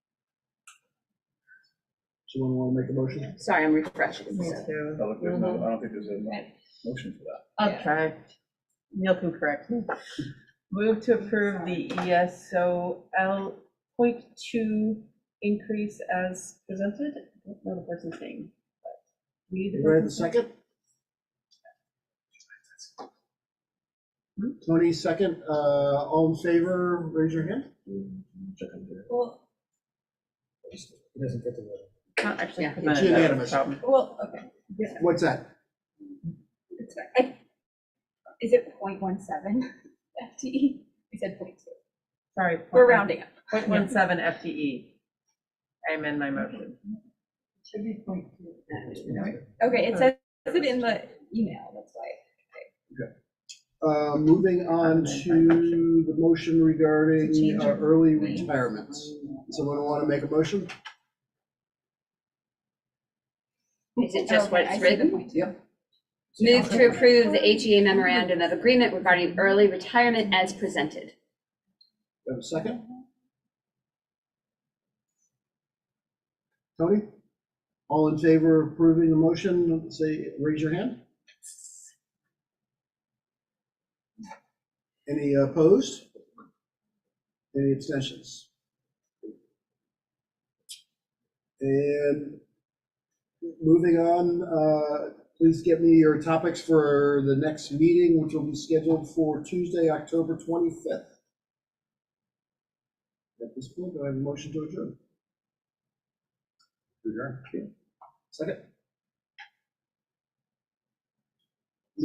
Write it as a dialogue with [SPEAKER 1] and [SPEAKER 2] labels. [SPEAKER 1] Someone want to make a motion?
[SPEAKER 2] Sorry, I'm refreshing.
[SPEAKER 3] Me
[SPEAKER 2] so.
[SPEAKER 3] too.
[SPEAKER 4] I don't think there's no- I don't think there's a mo- motion for that.
[SPEAKER 3] I'll try. Neil can correct me. Move to approve the E ESOL point two increase as presented. I don't know the person's name. but we need the
[SPEAKER 1] Anybody have the
[SPEAKER 3] person's-
[SPEAKER 1] second? Tony, second, uh, all in favor, raise your hand.
[SPEAKER 5] Well,
[SPEAKER 1] It doesn't get to that.
[SPEAKER 3] Not actually
[SPEAKER 2] Yeah.
[SPEAKER 3] presented,
[SPEAKER 1] It's
[SPEAKER 3] that's the
[SPEAKER 1] unanimous.
[SPEAKER 3] problem.
[SPEAKER 5] well, okay.
[SPEAKER 1] What's that?
[SPEAKER 5] It's fine. I- Is it 0.17 FTE? We E? said 0.2.
[SPEAKER 3] Sorry.
[SPEAKER 5] We're rounding up.
[SPEAKER 3] Point one seven FTE. I amend my motion.
[SPEAKER 5] Should be 0.2. Okay, it says it in the email, that's why.
[SPEAKER 1] Uh, Moving on to the motion regarding uh, early retirements. Someone want to make a motion?
[SPEAKER 6] Is it just what
[SPEAKER 5] Okay, I
[SPEAKER 6] it's
[SPEAKER 5] see the
[SPEAKER 6] written?
[SPEAKER 5] point.
[SPEAKER 1] Yep.
[SPEAKER 6] Move to approve the HEA memorandum of agreement regarding early retirement as presented.
[SPEAKER 1] Have a second? Tony? All in favor of approving the motion, say, raise your hand. Any opposed? Any abstentions? And moving on, uh, please get me your topics for the next meeting, which will be scheduled for Tuesday, October 25th. At this point, do I have a motion to adjourn? Adjourn. Second?